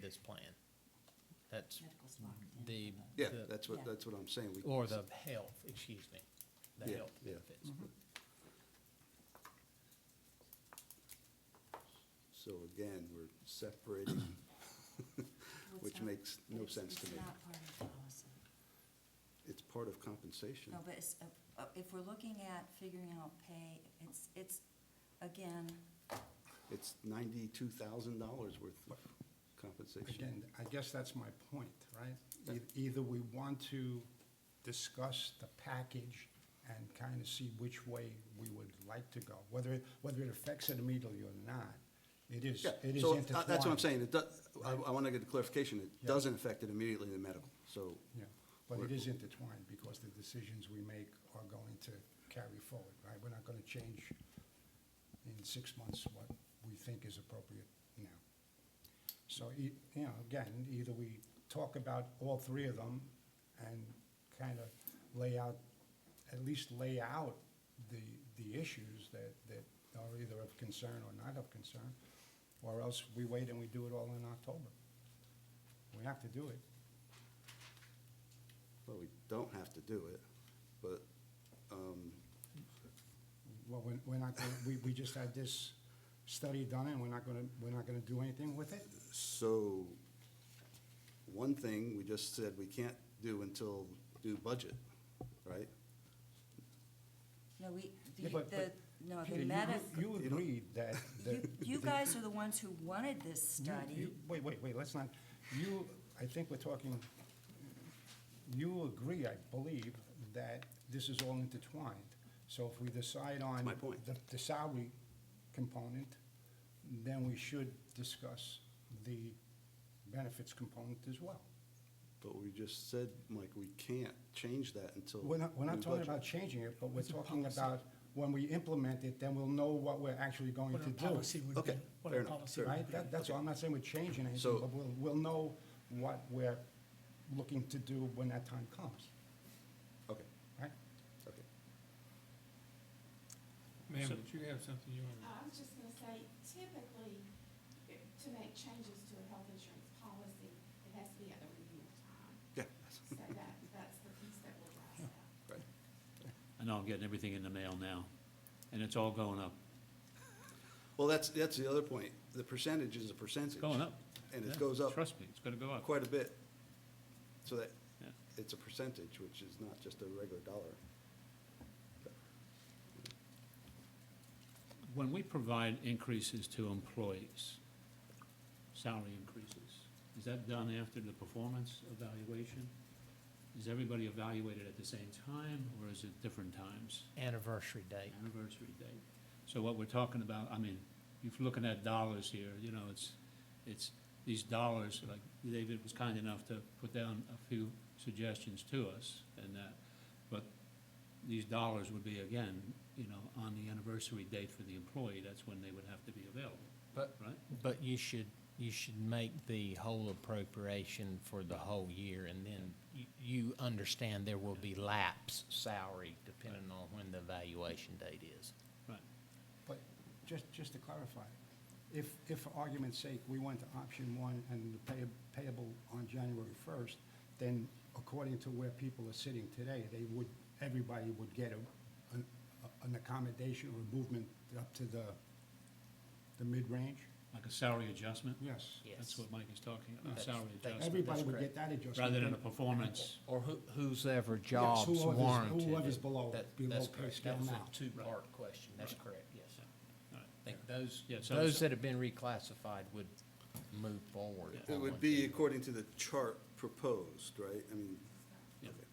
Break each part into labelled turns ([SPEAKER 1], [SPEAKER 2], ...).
[SPEAKER 1] his plan. That's
[SPEAKER 2] Medical's locked in.
[SPEAKER 1] the.
[SPEAKER 3] Yeah,
[SPEAKER 1] the-
[SPEAKER 3] that's what, that's what I'm saying. We-
[SPEAKER 1] Or the health, excuse me, the
[SPEAKER 3] Yeah,
[SPEAKER 1] health
[SPEAKER 3] yeah.
[SPEAKER 1] benefits.
[SPEAKER 3] So again, we're separating,
[SPEAKER 2] Well, it's
[SPEAKER 3] which
[SPEAKER 2] not-
[SPEAKER 3] makes no
[SPEAKER 2] it's-
[SPEAKER 3] sense to
[SPEAKER 2] It's
[SPEAKER 3] me.
[SPEAKER 2] not part of the policy.
[SPEAKER 3] It's part of compensation.
[SPEAKER 2] No, but it's, uh, uh, if we're looking at figuring out pay, it's, it's, again,
[SPEAKER 3] It's ninety-two thousand dollars worth of compensation.
[SPEAKER 4] Again, I guess that's my point, right? E- Either we want to discuss the package and kind of see which way we would like to go, whether, it- whether it affects it immediately or not, it is,
[SPEAKER 3] Yeah,
[SPEAKER 4] it is
[SPEAKER 3] so uh,
[SPEAKER 4] intertwined.
[SPEAKER 3] that's what I'm saying. It does, I, I want to get a clarification. It
[SPEAKER 4] Yeah.
[SPEAKER 3] doesn't affect it immediately in the medical, so.
[SPEAKER 4] Yeah, but it is intertwined because the decisions we make are going to carry forward, right? We're not going to change in six months what we think is appropriate now. So, e- you know, again, either we talk about all three of them and kind of lay out, at least lay out the, the issues that, that are either of concern or not of concern, or else we wait and we do it all in October. We have to do it.
[SPEAKER 3] Well, we don't have to do it, but, um,
[SPEAKER 4] Well, we're we're not, gonna- we, we just had this study done, and we're not going to, we're not going to do anything with it?
[SPEAKER 3] so, one thing, we just said we can't do until do budget, right?
[SPEAKER 2] no, we, the,
[SPEAKER 4] Yeah, but-
[SPEAKER 2] the-
[SPEAKER 4] but,
[SPEAKER 2] no,
[SPEAKER 4] Peter,
[SPEAKER 2] the
[SPEAKER 4] you-
[SPEAKER 2] medical,
[SPEAKER 4] You agreed that. that-
[SPEAKER 2] you, you guys are the ones who wanted this
[SPEAKER 4] you-
[SPEAKER 2] study.
[SPEAKER 4] Wait, wait, wait, let's not, you, I think we're talking, you agree, I believe, that this is all intertwined. So if we decide on.
[SPEAKER 3] my point.
[SPEAKER 4] The, the salary component, then we should discuss the benefits component as well.
[SPEAKER 3] But we just said, Mike, we can't change that until.
[SPEAKER 4] We're not, we're not
[SPEAKER 3] new
[SPEAKER 4] talking
[SPEAKER 3] budget.
[SPEAKER 4] about changing it, but we're
[SPEAKER 5] It's a
[SPEAKER 4] talking
[SPEAKER 5] policy.
[SPEAKER 4] about when we implement it, then we'll know what we're actually going
[SPEAKER 5] What
[SPEAKER 4] to
[SPEAKER 5] our policy
[SPEAKER 4] do.
[SPEAKER 5] would be.
[SPEAKER 3] Okay,
[SPEAKER 5] What
[SPEAKER 3] fair
[SPEAKER 5] our
[SPEAKER 3] enough,
[SPEAKER 5] policy
[SPEAKER 3] fair
[SPEAKER 4] Right?
[SPEAKER 5] would be.
[SPEAKER 4] That, that's all, I'm not saying we're changing
[SPEAKER 3] So-
[SPEAKER 4] anything, but we'll, we'll know what we're looking to do when that time comes,
[SPEAKER 3] Okay,
[SPEAKER 4] right?
[SPEAKER 3] okay.
[SPEAKER 6] Ma'am, did you have something you wanted?
[SPEAKER 7] I was Uh, just gonna say, typically, if- to make changes to a health insurance policy, it has to be at the review time.
[SPEAKER 3] Yeah.
[SPEAKER 7] So that, that's the piece that will drive that.
[SPEAKER 3] Right.
[SPEAKER 8] I know I'm getting everything in the mail now, and it's all going up.
[SPEAKER 3] Well, that's, that's the other point. The percentage is a percentage.
[SPEAKER 8] It's going up.
[SPEAKER 3] And
[SPEAKER 8] Yeah,
[SPEAKER 3] it goes up
[SPEAKER 8] Trust me, it's gonna go up.
[SPEAKER 3] quite a bit. So that,
[SPEAKER 8] Yeah.
[SPEAKER 3] it's a percentage, which is not just a regular dollar.
[SPEAKER 8] When we provide increases to employees, salary increases, is that done after the performance evaluation? Is everybody evaluated at the same time, or is it different times?
[SPEAKER 1] Anniversary date.
[SPEAKER 8] Anniversary date. So what we're talking about, I mean, if you're looking at dollars here, you know, it's, it's, these dollars, like David was kind enough to put down a few suggestions to us and that, but these dollars would be, again, you know, on the anniversary date for the employee, that's when they would have to be available,
[SPEAKER 1] But,
[SPEAKER 8] right?
[SPEAKER 1] but you should, you should make the whole appropriation for the whole year, and then you, you understand there will be lapse salary depending on when the evaluation date is.
[SPEAKER 8] Right.
[SPEAKER 4] But just, just to clarify, if, if for argument's sake, we went to option one and the pay- payable on January 1st, then according to where people are sitting today, they would, everybody would get a, an- an accommodation or movement up to the, the mid-range?
[SPEAKER 8] Like a salary adjustment?
[SPEAKER 4] Yes.
[SPEAKER 1] Yes.
[SPEAKER 8] That's what Mike is talking about,
[SPEAKER 1] That's-
[SPEAKER 8] salary
[SPEAKER 1] that's-
[SPEAKER 8] adjustment,
[SPEAKER 4] Everybody would
[SPEAKER 1] correct.
[SPEAKER 4] get that adjustment.
[SPEAKER 8] rather than a performance.
[SPEAKER 1] Or who, whose ever
[SPEAKER 4] Yes,
[SPEAKER 1] jobs
[SPEAKER 4] whoever's-
[SPEAKER 1] warranted.
[SPEAKER 4] whoever's
[SPEAKER 1] it.
[SPEAKER 4] below-
[SPEAKER 1] That-
[SPEAKER 4] below
[SPEAKER 1] that's
[SPEAKER 4] pay
[SPEAKER 1] correct.
[SPEAKER 4] scale
[SPEAKER 1] That's a
[SPEAKER 4] now.
[SPEAKER 1] Two-part question, that's correct, yes.
[SPEAKER 8] All right.
[SPEAKER 1] I think those,
[SPEAKER 8] Yeah, so-
[SPEAKER 1] those that have been reclassified would move forward.
[SPEAKER 3] It
[SPEAKER 8] Oh,
[SPEAKER 3] would be according to the chart proposed, right? I mean,
[SPEAKER 8] Yeah.
[SPEAKER 3] okay.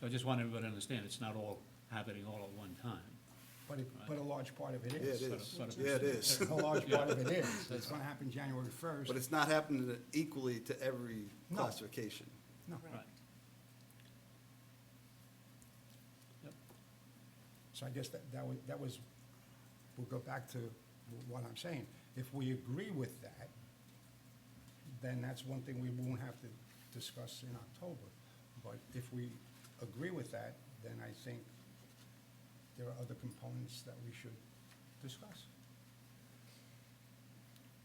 [SPEAKER 8] So I just want everybody to understand, it's not all happening all at one time.
[SPEAKER 4] But, it- but a large part of it
[SPEAKER 3] Yeah, it
[SPEAKER 4] is.
[SPEAKER 3] is.
[SPEAKER 8] But- but-
[SPEAKER 3] Yeah, it is.
[SPEAKER 4] A large part of it is. It's going to happen January 1st.
[SPEAKER 3] But it's not happening equally to every
[SPEAKER 4] No.
[SPEAKER 3] classification.
[SPEAKER 4] No.
[SPEAKER 8] Right. Yep.
[SPEAKER 4] So I guess that, that was, that was, we'll go back to what I'm saying. If we agree with that, then that's one thing we won't have to discuss in October. But if we agree with that, then I think there are other components that we should discuss.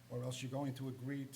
[SPEAKER 4] Or else you're going to agree to